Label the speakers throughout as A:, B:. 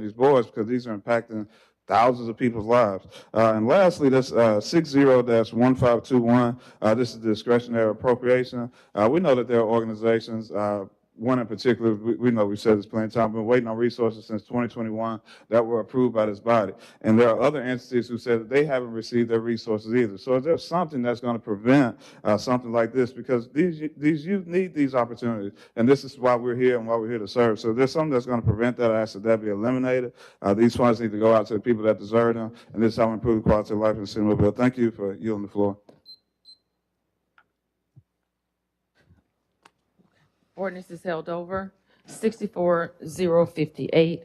A: these boards because these are impacting thousands of people's lives. Uh, and lastly, this uh, six zero dash one five two one, uh, this is discretionary appropriation. Uh, we know that there are organizations, uh, one in particular, we, we know we've said this plenty of times, been waiting on resources since twenty twenty-one that were approved by this body. And there are other entities who said that they haven't received their resources either. So is there something that's going to prevent, uh, something like this? Because these, y- these youth need these opportunities. And this is why we're here and why we're here to serve. So if there's something that's going to prevent that, I ask that that be eliminated. Uh, these funds need to go out to the people that deserve them. And this is how we improve the quality of life in Centerville. Thank you for yielding the floor.
B: Ordinance is held over. 64058,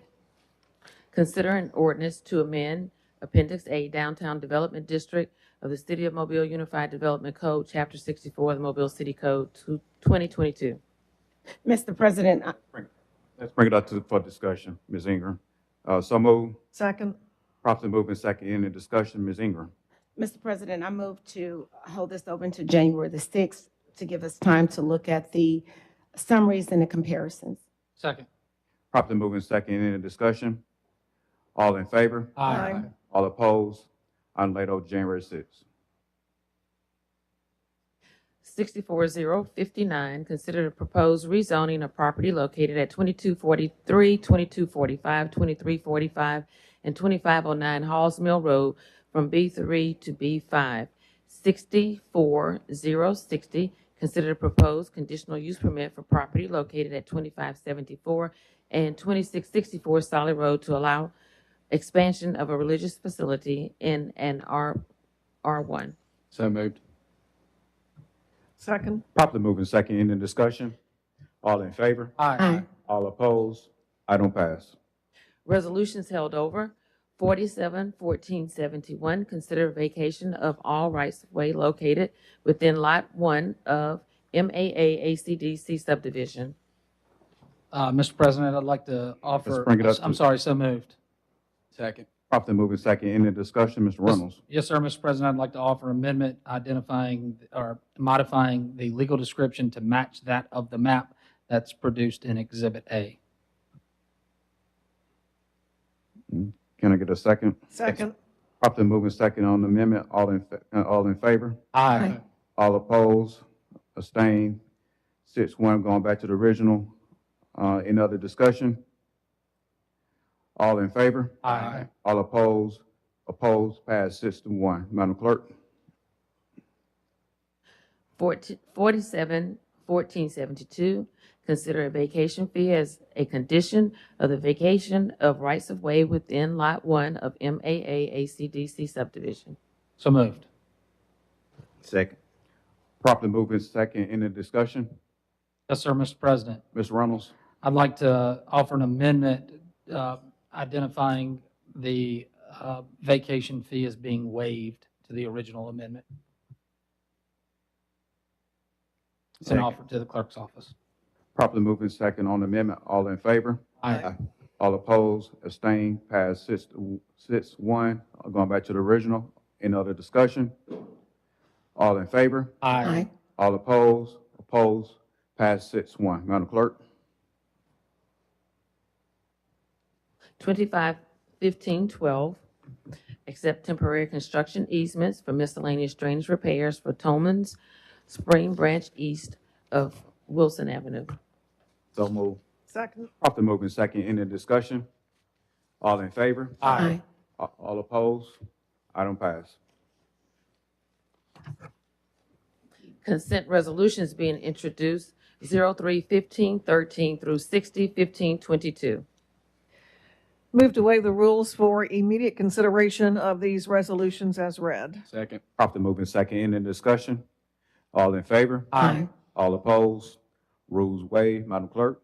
B: consider an ordinance to amend Appendix A Downtown Development District of the City of Mobile Unified Development Code, Chapter 64 of the Mobile City Code to 2022.
C: Mr. President, I-
D: Let's bring it up to, for discussion, Ms. Ingram. Uh, so move,
E: Second,
D: properly moving second, any discussion, Ms. Ingram?
C: Mr. President, I move to hold this open to January the 6th to give us time to look at the summaries and the comparisons.
F: Second.
D: Properly moving second, any discussion? All in favor?
E: Aye.
D: All opposed? Item laid over January sixth.
B: 64059, consider the proposed rezoning of property located at 2243, 2245, 2345, and 2509 Halls Mill Road from B3 to B5. 64060, consider the proposed conditional use permit for property located at 2574 and 2664 Solid Road to allow expansion of a religious facility in an R R1.
F: So moved.
E: second,
D: Properly moving second, any discussion? All in favor?
F: Aye.
D: All opposed? Item pass.
B: Resolutions held over. 47, 14, 71, consider vacation of all rights of way located within Lot 1 of MAA ACDC subdivision.
F: Uh, Mr. President, I'd like to
D: Let's
F: offer,
D: bring it up
F: I'm
D: to-
F: sorry, so moved. Second.
D: Properly moving second, any discussion, Mr. Reynolds?
F: Yes, sir, Mr. President, I'd like to offer amendment identifying or modifying the legal description to match that of the map that's produced in Exhibit A.
D: Can I get a second?
E: second,
D: Properly moving second on the amendment, all in, fa- uh, all in favor?
F: Aye.
D: All opposed, abstained, six one, going back to the original. Uh, any other discussion? All in favor?
F: Aye.
D: All opposed, opposed, passed six to one. Madam Clerk?
B: 14 47, 14, 72, consider a vacation fee as a condition of the vacation of rights of way within Lot 1 of MAA ACDC subdivision.
F: So moved.
D: Second. Properly moving second, any discussion?
F: Yes, sir, Mr. President.
D: Ms. Reynolds?
F: I'd like to offer an amendment uh, identifying the uh, vacation fee as being waived to the original amendment. It's an
D: Second.
F: offer to the clerk's office.
D: Properly moving second on the amendment, all in favor?
F: Aye.
D: All opposed, abstained, passed six, to- six one, going back to the original. Any other discussion? All in favor?
F: Aye.
D: All opposed, opposed, pass six one. Madam Clerk?
B: 25, 15, 12, accept temporary construction easements for miscellaneous drainage repairs for Tomans Spring Branch East of Wilson Avenue.
D: So move.
E: second,
D: Properly moving second, end of discussion. All in favor?
F: Aye.
D: A- All opposed? Item pass.
B: Consent resolutions being introduced, 03, 15, 13 through 60, 15, 22.
E: move to waive the rules for immediate consideration of these resolutions as read.
F: Second.
D: Properly moving second, end of discussion. All in favor?
F: Aye.
D: All opposed? Rules waived. Madam Clerk?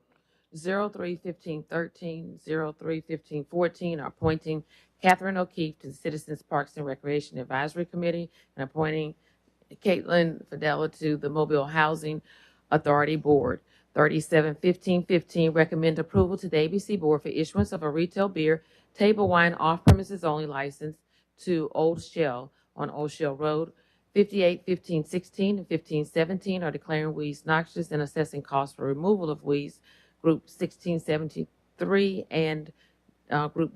B: 03, 15, 13, 03, 15, 14, are appointing Catherine O'Keefe to the Citizens Parks and Recreation Advisory Committee and appointing Caitlin Fidella to the Mobile Housing Authority Board. 37, 15, 15, recommend approval to the ABC Board for issuance of a retail beer, table wine off-premises only license to Old Shell on Old Shell Road. 58, 15, 16, and 15, 17 are declaring weeds noxious and assessing costs for removal of weeds Group 1673 and uh, Group